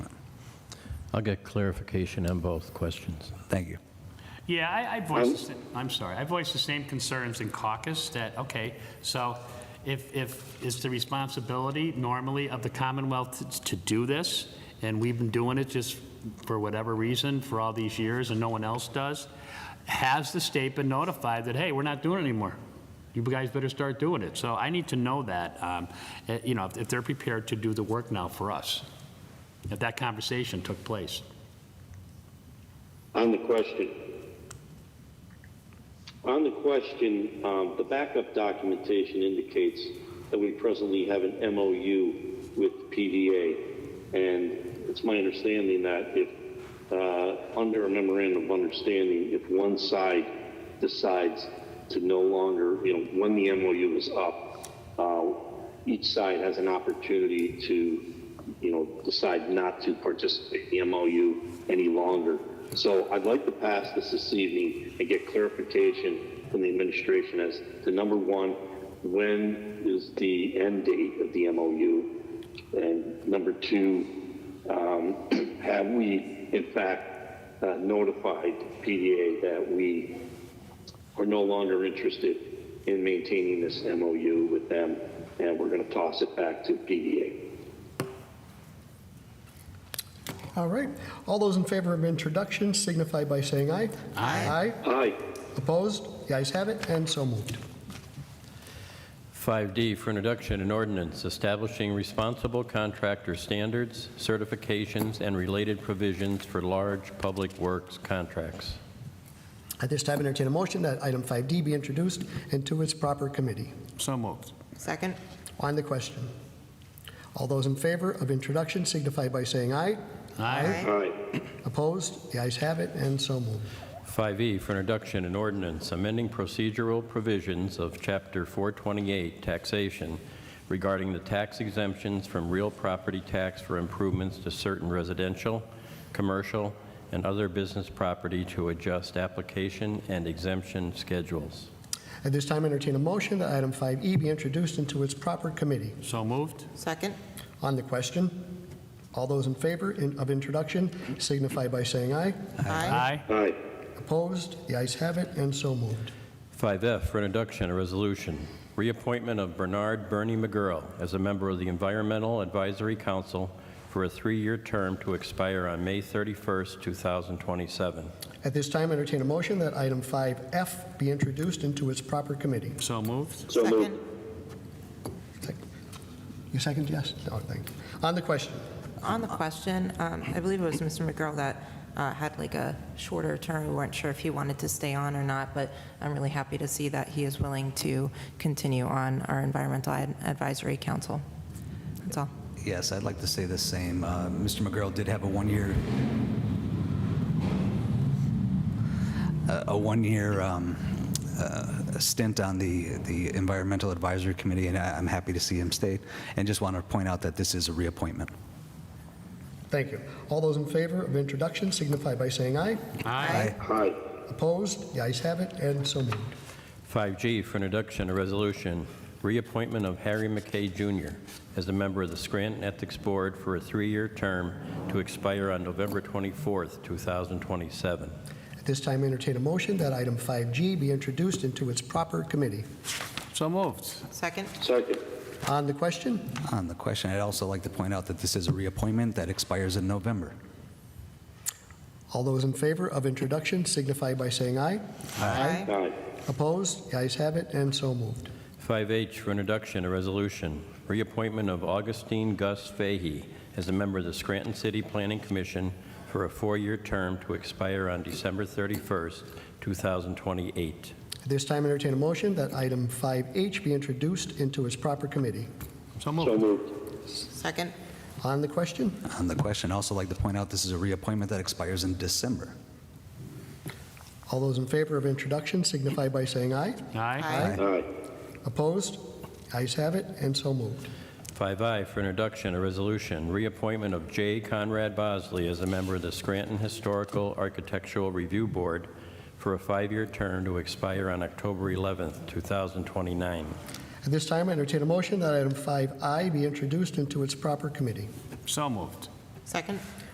I'll get clarification on both questions. Thank you. Yeah, I, I voiced, the sa- I'm sorry, I voiced the same concerns in caucus that, okay, so if, if it's the responsibility normally of the Commonwealth to- to do this, and we've been doing it just for whatever reason for all these years and no one else does, has the state been notified that, hey, we're not doing it anymore? You guys better start doing it. So I need to know that, um, eh, you know, if- if they're prepared to do the work now for us, if that conversation took place. On the question, on the question, um, the backup documentation indicates that we presently have an MOU with PDA, and it's my understanding that if, uh, under a memorandum of understanding, if one side decides to no longer, you know, when the MOU is up, uh, each side has an opportunity to, you know, decide not to participate in the MOU any longer. So I'd like to pass this this evening and get clarification from the administration as to number one, when is the end date of the MOU? And number two, um, have we in fact uh, notified PDA that we are no longer interested in maintaining this MOU with them and we're going to toss it back to PDA? All right. All those in favor of introduction signify by saying aye. Aye. Aye. Aye. Opposed? The ayes have it, and so moved. 5D for introduction, an ordinance establishing responsible contractor standards, certifications, and related provisions for large public works contracts. At this time, entertain a motion that item 5D be introduced and to its proper committee. So moved. Second? On the question. All those in favor of introduction signify by saying aye. Aye. Opposed? The ayes have it, and so moved. 5E E for introduction, an ordinance amending procedural provisions of Chapter 428 taxation regarding the tax exemptions from real property tax for improvements to certain residential, commercial, and other business property to adjust application and exemption schedules. At this time, entertain a motion that item 5E be introduced and to its proper committee. So moved. Second? On the question. All those in favor in- of introduction signify by saying aye. Aye. Aye. Opposed? The ayes have it, and so moved. 5F for introduction, a resolution, reappointment of Bernard Bernie McGurl as a member of the Environmental Advisory Council for a three-year term to expire on May 31st, 2027. At this time, entertain a motion that item 5F be introduced into its proper committee. So moved. So moved. Second. You second, yes? No, thank you. On the question, On the question, um, I believe it was Mr. McGurl that uh, had like a shorter term. We weren't sure if he wanted to stay on or not, but I'm really happy to see that he is willing to continue on our Environmental Ad- Advisory Council. That's all. Yes, I'd like to say the same. Uh, Mr. McGurl did have a one-year, a a one-year um, uh, stint on the, the Environmental Advisory Committee, and I- I'm happy to see him stay. And just want to point out that this is a reappointment. thank you. All those in favor of introduction signify by saying aye. Aye. Aye. Opposed? The ayes have it, and so moved. 5G for introduction, a resolution, reappointment of Harry McKay Jr. as a member of the Scranton Ethics Board for a three-year term to expire on November 24th, 2027. At this time, entertain a motion that item 5G be introduced into its proper committee. So moved. Second? Second. On the question, On the question, I'd also like to point out that this is a reappointment that expires in November. all those in favor of introduction signify by saying aye. Aye. Aye. Opposed? The ayes have it, and so moved. 5H for introduction, a resolution, reappointment of Augustine Gus Fahey as a member of the Scranton City Planning Commission for a four-year term to expire on December 31st, 2028. At this time, entertain a motion that item 5H be introduced into its proper committee. So So moved. moved. Second? On the question, On the question, I'd also like to point out this is a reappointment that expires in December. All those in favor of introduction signify by saying aye. Aye. Aye. Opposed? Ayes have it, and so moved. 5I for introduction, a resolution, reappointment of J. Conrad Bosley as a member of the Scranton Historical Architectural Review Board for a five-year term to expire on October 11th, 2029. At this time, I entertain a motion that item 5I be introduced into its proper committee. So moved. Second?